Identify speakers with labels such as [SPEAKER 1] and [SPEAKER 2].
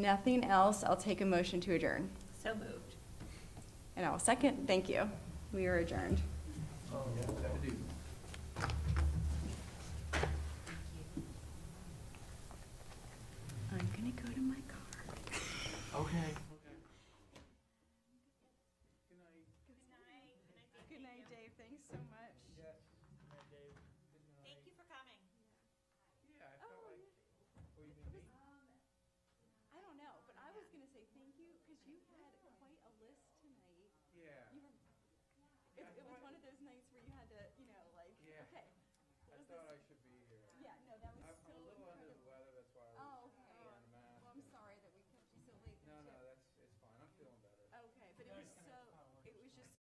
[SPEAKER 1] nothing else, I'll take a motion to adjourn.
[SPEAKER 2] So moved.
[SPEAKER 1] And I'll second, thank you. We are adjourned. I'm gonna go to my car.
[SPEAKER 3] Okay.
[SPEAKER 1] Good night, Dave, thanks so much.
[SPEAKER 2] Thank you for coming.
[SPEAKER 1] I don't know, but I was gonna say thank you, because you had quite a list tonight.
[SPEAKER 3] Yeah.
[SPEAKER 1] You were, it, it was one of those nights where you had to, you know, like,
[SPEAKER 3] Yeah.
[SPEAKER 1] okay, what
[SPEAKER 3] I
[SPEAKER 1] was this?
[SPEAKER 3] thought I should
[SPEAKER 1] Oh,